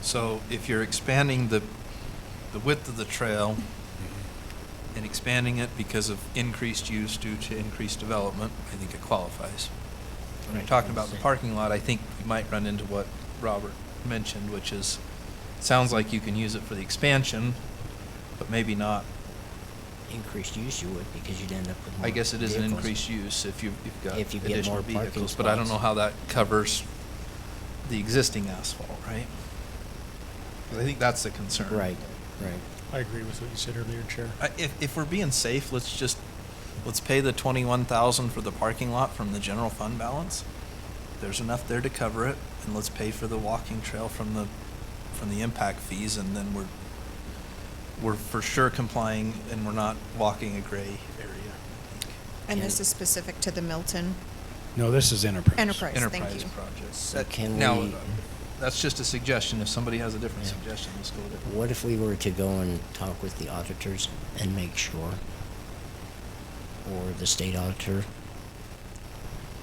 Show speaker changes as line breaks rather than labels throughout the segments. So if you're expanding the, the width of the trail and expanding it because of increased use due to increased development, I think it qualifies. When you're talking about the parking lot, I think you might run into what Robert mentioned, which is, sounds like you can use it for the expansion, but maybe not.
Increased use you would, because you'd end up with more
I guess it is an
Mm-hmm. vehicles.
increased use if you- you've got
If you get
additional
more parking
vehicles, but I don't know
spots.
how that covers the existing asphalt, right? 'Cause I think that's the concern.
Right, right.
I agree with what you said earlier, Chair.
I- Uh, If, if we're being safe, let's just, let's pay the twenty-one thousand for the parking lot from the general fund balance. There's enough there to cover it, and let's pay for the walking trail from the, from the impact fees, and then we're, we're for sure complying, and we're not walking a gray area.
And
Can-
this is specific to the Milton
No, this is enterprise.
Enterprise, thank
Enterprise
you.
project.
So
That-
can
now,
we-
That's just a suggestion. If somebody has a different
Yeah.
suggestion, let's go with it.
What if we were to go and talk with the auditors and make sure, or the state auditor,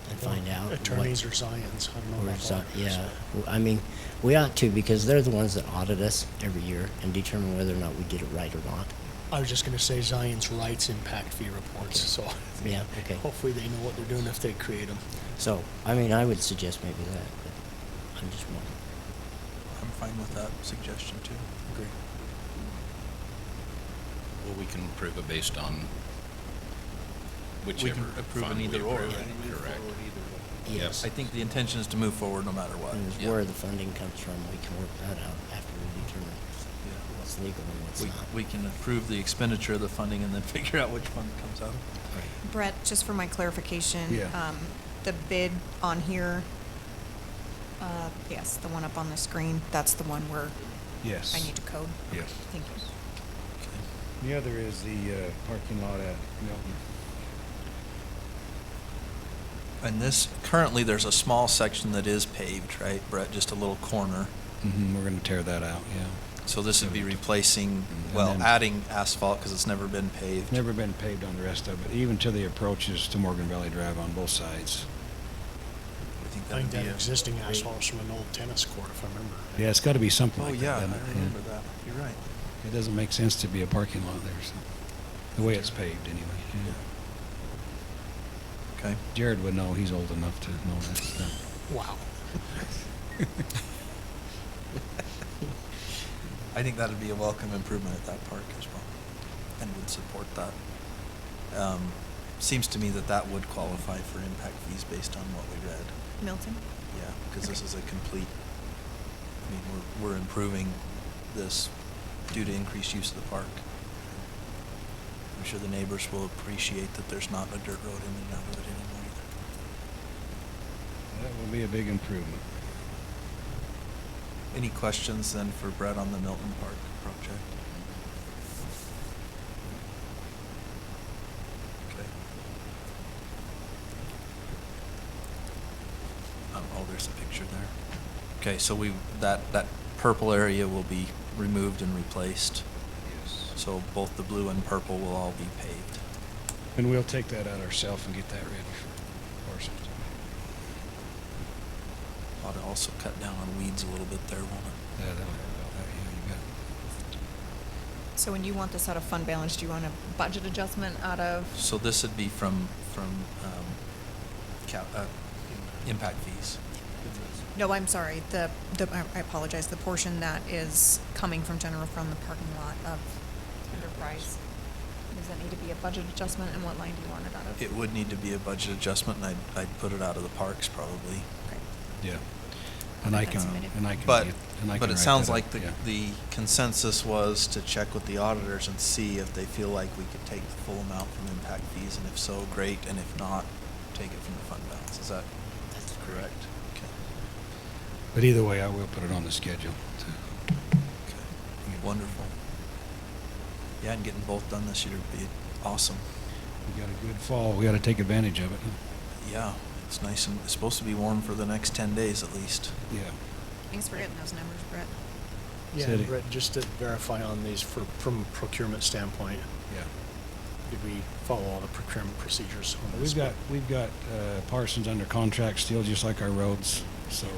and find out? what-
Attorneys or Zions, I don't know
or
about
so-
lawyers.
Yeah, w- I mean, we ought to, because they're the ones that audit us every year and determine whether or not we did it right or not.
I was just gonna say Zion's rights impact fee reports, so.
Yeah, okay.
Hopefully they know what they're doing if they create them.
So, I mean, I would suggest maybe that, but I'm just wondering.
I'm fine with that suggestion too.
Agree.
Well, we can approve it based on
We
whichever
can
fund
approve an
we
either or,
approve,
right?
Correct.
Yes.
Yes.
I think the intention is to move forward no matter what.
Mm.
And where the funding comes from, we can work that out after we determine
Yeah.
what's legal and what's
We,
not.
we can approve the expenditure of the funding and then figure out which fund it comes out of.
Brett, just for my clarification.
Yeah.
um, The bid on here, uh, yes, the one up on the screen, that's the one where
Yes.
I need to code?
Yes.
Thank you.
Okay.
The other is the uh, parking lot at Milton.
And this, currently, there's a small section that is paved, right, Brett? Just a little corner.
hmm we're gonna tear that out, yeah.
So this would be replacing,
And
well,
then-
adding asphalt because it's never been paved.
Never been paved on the rest of it, even to the approaches to Morgan Valley Drive on both sides.
I think
I
that
think
would be
that
a-
existing asphalt's from an old tennis court, if I remember. right.
Yeah, it's gotta be something
Oh,
like
yeah,
that.
I
doesn't it?
remember that. You're right.
It doesn't make sense to be a parking lot there, so, the way it's paved anyway. yeah.
Okay.
Jared would know, he's old enough to know that stuff.
Wow.
I think that'd be a welcome improvement at that park as well, and would support that. Um, Seems to me that that would qualify for impact fees based on what we read.
Milton?
Yeah, because this
Okay.
is a complete, I mean, we're, we're improving this due to increased use of the park. I'm sure the neighbors will appreciate that there's not a dirt road in and out of it anymore either.
That would be a big improvement.
Any questions then for Brett on the Milton Park project? Okay. Um, oh, there's a picture there. Okay, so we, that, that purple area will be removed and replaced.
Yes.
So both the blue and purple will all be paved.
And we'll take that out ourselves and get that ready for Parsons.
Ought to also cut down on weeds a little bit there, won't it?
Yeah, that'll, help out. yeah, you got it.
So when you want this out of fund balance, do you want a budget adjustment out of?
So this would be from, from, um, cap, uh, impact fees.
No, I'm sorry, the, the, I I apologize, the portion that is coming from general from the parking lot of Enterprise. Does that need to be a budget adjustment, and what line do you want it out of?
It would need to be a budget adjustment, and I'd, I'd put it out of the parks probably.
Okay.
Yeah. And I
That's
can,
submitted.
and I can.
But,
get- and I
but
can
it
write
sounds
that
like
up,
the,
yeah.
the consensus was to check with the auditors and see if they feel like we could take the full amount from impact fees, and if so, great, and if not, take it from the fund balance. Is that
That's
correct? Okay.
But either way, I will put it on the schedule to
Okay. Wonderful. Yeah, and getting both done this year would be awesome.
We got a good fall. We got to take advantage of it.
Yeah, it's nice and, it's supposed to be warm for the next ten days at least.
Yeah.
Thanks for getting those numbers, Brett.
Yeah,
Said it.
Brett, just to verify on these for, from procurement standpoint,
Yeah.
did we follow all the procurement procedures on this?
We've got, we've got uh, Parsons under contract still, just like our roads. So